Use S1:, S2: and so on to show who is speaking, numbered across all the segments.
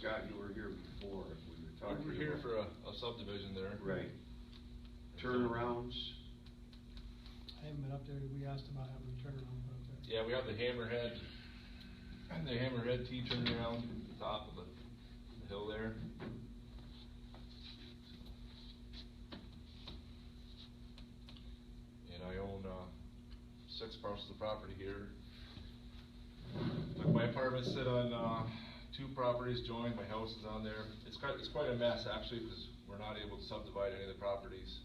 S1: Scott, you were here before, we were talking.
S2: We were here
S1: about-
S2: for a a subdivision there.
S1: Right. Turnarounds,
S3: I haven't been up there, we asked about having a turnaround put up there.
S2: Yeah, we have the hammerhead, the hammerhead T turnaround at the top of the the hill there. And I own, uh, six parcels of property here. Like my apartments sit on, uh, two properties joined, my house is on there. It's quite, it's quite a mess actually, because we're not able to subdivide any of the properties.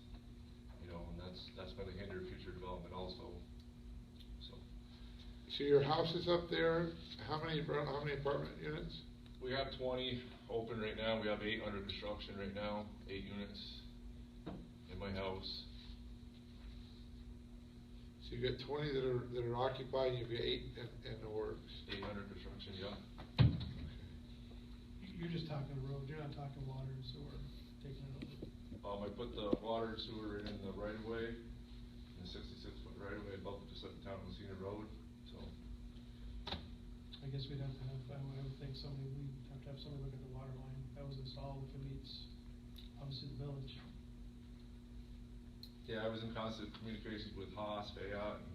S2: You know, and that's, that's gonna hinder future development also, so.
S4: So your house is up there, how many, abro- how many apartment units?
S2: We have twenty open right now, we have eight under construction right now, eight units in my house.
S4: So you got twenty that are, that are occupied, you've got eight in, in the works.
S2: Eight under construction, yeah.
S3: You- You're just talking road, you're not talking water and sewer, taking it over.
S2: Um, I put the water and sewer in the right of way, in the sixty-six foot right of way, above just up town on Cena Road, so.
S3: I guess we'd have to have, I would, I would think somebody, we'd have to have somebody look at the water line, that was installed, if it meets, obviously the village.
S2: Yeah, I was in constant communications with Haas, Fayette, and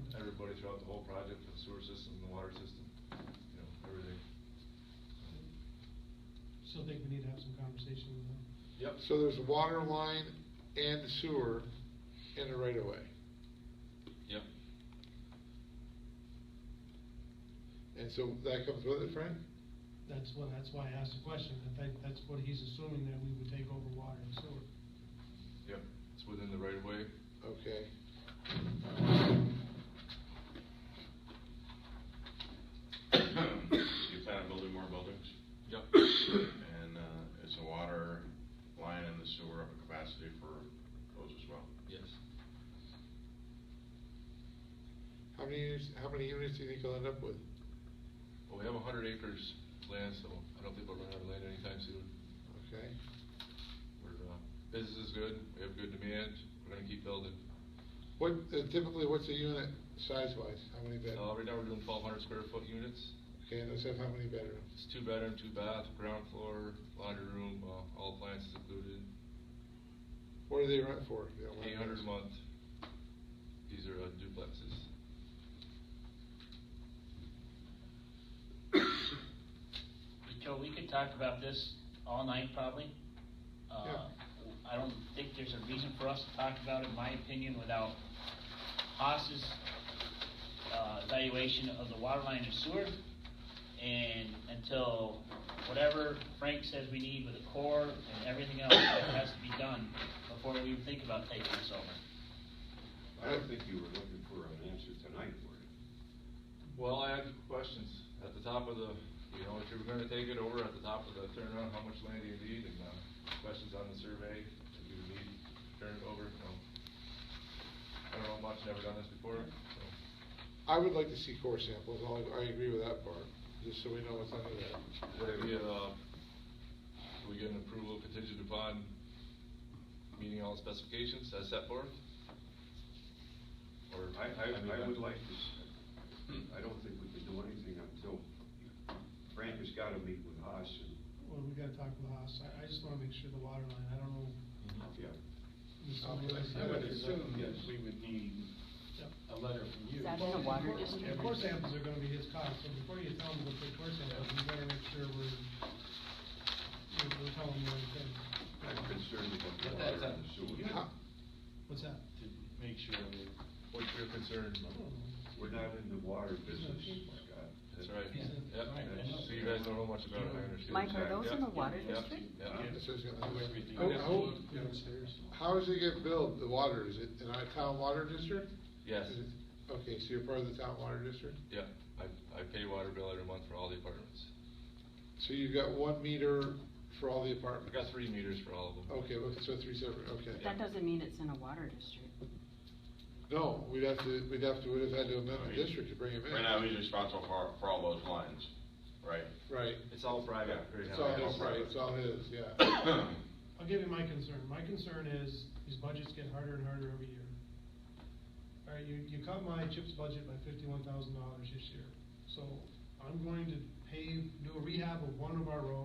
S3: Mm-hmm.
S2: everybody throughout the whole project, for the sewer system, the water system, you know, everything.
S3: Still think we need to have some conversation with them.
S2: Yep.
S4: So there's water line and sewer in the right of way.
S2: Yep.
S4: And so that comes with it, Frank?
S3: That's what, that's why I asked the question, I think that's what he's assuming, that we would take over water and sewer.
S2: Yep, it's within the right of way.
S4: Okay.
S5: You plan on building more buildings?
S2: Yep.
S5: And uh, is the water line and the sewer of a capacity for those as well?
S2: Yes.
S4: How many units, how many units do you think you'll end up with?
S2: Well, we have a hundred acres land, so I don't think we'll run out of land anytime soon.
S4: Okay,
S2: We're, uh, business is good, we have good demand, we're gonna keep building.
S4: what, uh, typically, what's a unit size-wise, how many
S2: Uh, right
S4: bedrooms?
S2: now, we're doing twelve hundred square foot units.
S4: Okay, and those have how many bedrooms?
S2: It's two bedroom, two bath, ground floor, laundry room, uh, all appliances included.
S4: What do they rent for? if you don't mind
S2: Eight hundred a
S4: asking?
S2: month. These are uh, duplexes.
S6: Joe, we could talk about this all night probably. Uh, I don't think there's a reason for us to talk about it, in my opinion, without Haas's uh, evaluation of the water line and sewer. And until whatever Frank says we need with the core and everything else that has to be done before we even think about taking this over.
S1: I don't think you were looking for an answer tonight, were you?
S2: Well, I had questions at the top of the, you know, if you were gonna take it over at the top of the turnaround, how much land do you need, and, uh, questions on the survey that you would need, turn it over, you know. I don't know much, never done this before, so.
S4: I would like to see core samples, I, I agree with that part, just so we know what's under there.
S2: Would it be, uh, we get an approval contingent upon meeting all specifications as set forth? Or?
S1: I,
S2: mean,
S1: I, I would like to, s- I don't think we can do anything until Frank has gotta meet with us and,
S3: Well, we gotta talk with Haas, I, I just wanna make sure the water line, I don't know.
S2: Mm-hmm.
S5: Mm-hmm.
S1: yeah.
S3: if
S7: I
S3: somebody
S7: would-
S3: else-
S7: I would assume
S1: Yes.
S7: that we would need
S3: Yep.
S7: a letter from you.
S8: Is that in the water district?
S3: Of course, samples are gonna be his cost, so before you tell him to take core samples, you better make sure we're, we're- we're telling him the right thing.
S1: I'm concerned about the
S7: But
S1: water
S7: that's
S1: and
S7: up
S1: the
S7: to you
S1: sewer.
S4: How-
S7: to
S3: What's that?
S7: make sure that.
S2: What's your concern?
S3: I don't know.
S1: We're not in the water business, Scott.
S2: That's right.
S7: Yeah.
S2: Yep.
S7: Right, I know.
S2: So you guys don't know much about it, I understand.
S8: Mike, are those in the
S2: Yep,
S8: water
S2: yep,
S8: district?
S2: yep.
S7: Yeah. Oh,
S4: This is gonna-
S7: Do everything.
S4: How- how-
S7: Downstairs.
S4: How does it get billed, the water, is it in our town water district?
S2: Yes.
S4: Is it- Okay, so you're part of the town water district?
S2: Yeah, I, I pay water bill every month for all the apartments.
S4: So you've got one meter for all the
S2: I
S4: apartments?
S2: got three meters for all of them.
S4: Okay, well, so three separate, okay.
S2: Yeah.
S8: That doesn't mean it's in a water district.
S4: No, we'd have to, we'd have to, we'd have had to amend the district to bring him in.
S5: Right now, he's responsible for, for all those lines, right?
S4: Right,
S2: It's all private.
S5: Yeah.
S2: right
S4: it's
S2: now.
S4: all his, right, it's all his, yeah.
S3: I'll give you my concern. My concern is, these budgets get harder and harder every year. All right, you, you cut my CHIPS budget by fifty-one thousand dollars this year. So I'm going to pave, do a rehab of one of our roads